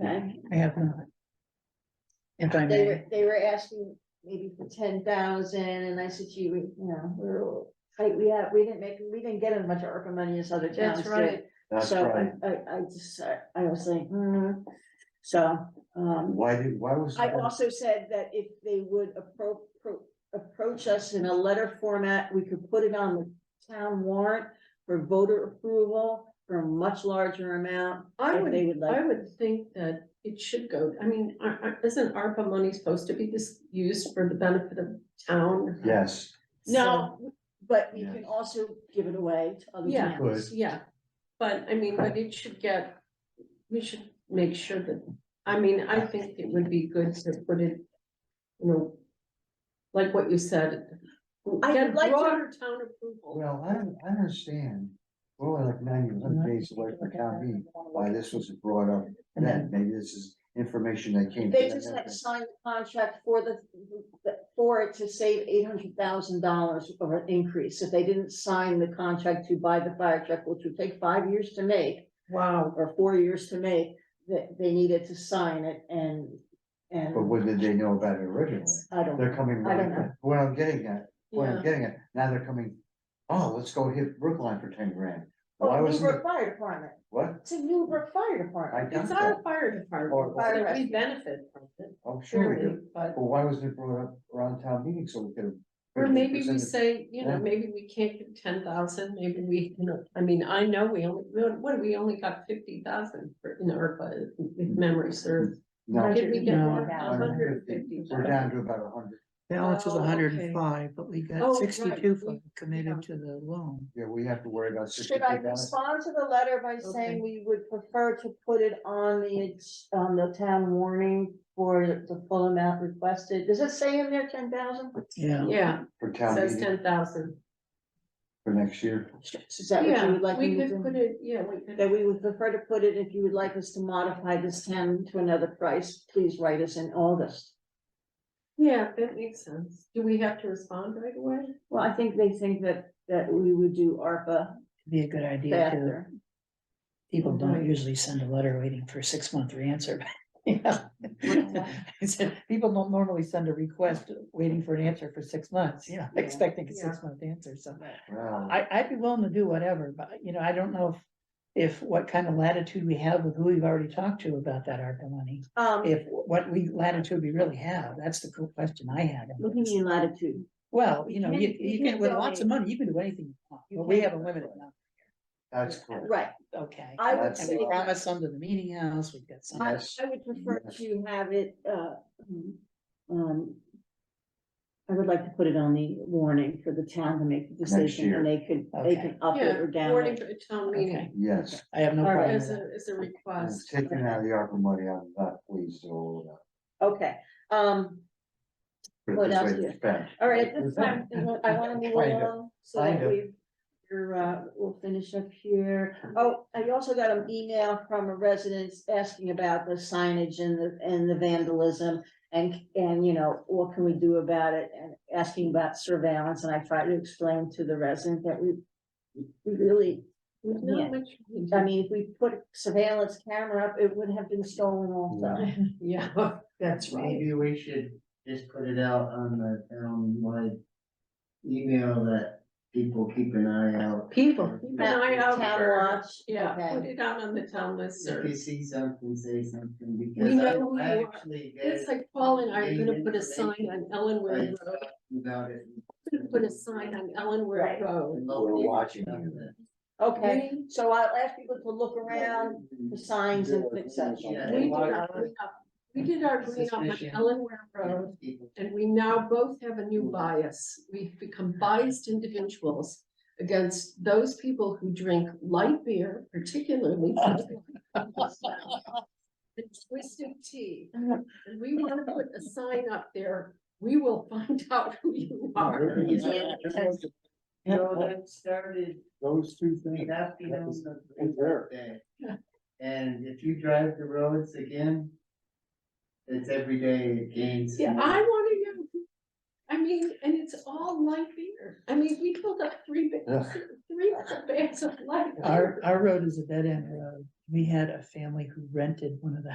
then. I have not. If They I may, were, they were asking maybe for ten thousand, and I said, gee, we, you know, we're, like, we had, we didn't make, we didn't get as much ARPA money as other towns That's did. right. That's So I, right. I, I just, I I was like, hmm, so, um, Why did, why was? I that? also said that if they would appro- pro- approach us in a letter format, we could put it on the town warrant for voter approval for a much larger amount. I if would, They would I like, would think that it should go, I mean, are- are- isn't ARPA money supposed to be this used for the benefit of town? Yes, no, but we can Yeah. also give it away to other Yeah. towns. good. So, Yeah, but I mean, but it should get, we should make sure that, I mean, I think it would be good to put it, you know, like what you said. I get would like to- Broader town approval. Well, I don't, I understand. We're only like ninety Mm-hmm. one days away from uh, town meeting, why this wasn't brought up and then Mm-hmm. then, maybe this is information that came. to They them just had after. to sign the contract for the, the- for it to save eight hundred thousand dollars of an increase. If they didn't sign the contract to buy the fire truck, which would take five years to make, Wow. or four years to make, that they needed to sign it and, But and when did they know about it originally? I don't. They're coming, I don't right- what I'm getting at, what Yeah, I'm getting at, now they're coming, oh, let's go hit Brookline for ten grand. Why Oh, Well, wasn't, Newburgh it- Oh, Fire Department, what? it's a Newburgh Fire Department. I it's doubt our that, fire department, Fire that we rescue. benefit from it, I'm Oh, sure we surely, do, but, but why wasn't it brought up around town meeting so we could? or maybe we presented- say, you know, Yeah. maybe we can't do ten thousand, maybe we, you know, I mean, I know we only, what, what, we only got fifty thousand for, in ARPA, if Mm-hmm. memory serves. No, Did we get No. more? A hundred and 150. fifty we're thousand. down to about a hundred, balance is Oh, hundred okay. and five, but we Oh, got right, sixty-two we- yeah. committed to the loan. yeah, we have to worry about sixty-two Should I thousand. respond to the letter by Okay. saying we would prefer to put it on the, ag- on the town warning for the full amount requested? Does it say in there ten thousand? Yeah, Yeah, For town says meeting ten thousand. for next year, Is that what you would like? We me to could do? put it, yeah, we could. That we would prefer to put it, if you would like us to modify this ten to another price, please write us in August. Yeah, that makes sense. Do we have to respond right away? Well, I think they think that, that we would do ARPA be a good idea too. faster. People Right. don't usually send a letter waiting for a six-month answer. Yeah. I said, people don't normally send a request waiting for an answer for six months, you know, Yeah. expecting a Yeah. six-month answer, so. wow. I, I'd be willing to do whatever, but you know, I don't know if, if what kind of latitude we have with who we've already talked to about that ARPA money. Um, If, what we latitude we really have, that's the cool question I had. in what do you this. mean latitude? Well, you know, You you, can't- you you can, can't with go lots of money, you can do anything, you want, but we can't have a go limited anywhere. amount, That's correct. Right, okay. I would That's uh, And say we all. that. promised some to the meeting house, we've got some. I, Yes. I would prefer to have it, uh, um, I would like to put it on the warning for the town to make the Next decision year. and they could, they can up it Yeah, or down Warning it. for a town meeting Yes, I have no All right. problem with as that. a, as a and request. taking out the ARPA money, I'm not pleased at all. Okay, um, uh, Put it What this else way, do it's you- bad. all right, at this time, I want- I wanna move Kind of, along so that kind of. we, you're, uh, we'll finish up here. Oh, I also got an email from a resident asking about the signage and the, and the vandalism. And, and you know, what can we do about it and asking about surveillance and I tried to explain to the resident that we. We really, There's not Yeah. much we I can mean, if we put surveillance camera up, it would have been stolen also. do. Yeah, that's right. Maybe we should just put it out on the townwide email that people keep an eye out. People. Keep an eye out Town for, watch, yeah, okay. put it out on the town list. If you see something, say something We because know I who I you are. actually. It's get like Paul and I are gonna Name put a sign on Ellenwood I Road, thought About it. We're gonna put a sign on Ellenwood Right. Road. We're watching you. Okay, We- so I'll ask people to look around the signs and things such. Yeah. We did Water. our green up, we did our green up on Suspicion. Ellenwood Road. And we now both have a new bias. We've become biased individuals against those people who drink light beer, particularly. And twisted tea. And we want to put a sign up there. We will find out who you are. No, that started Those two the afternoon That's- of that's there. Labor Day. And if you drive the roads again, it's every day it gains. Yeah, more. I want to know. who- I mean, and it's all light beer. I mean, we filled up three, ba- Yeah. three bags of light. Our, beer. our road is a dead end road. We had a family who rented one of the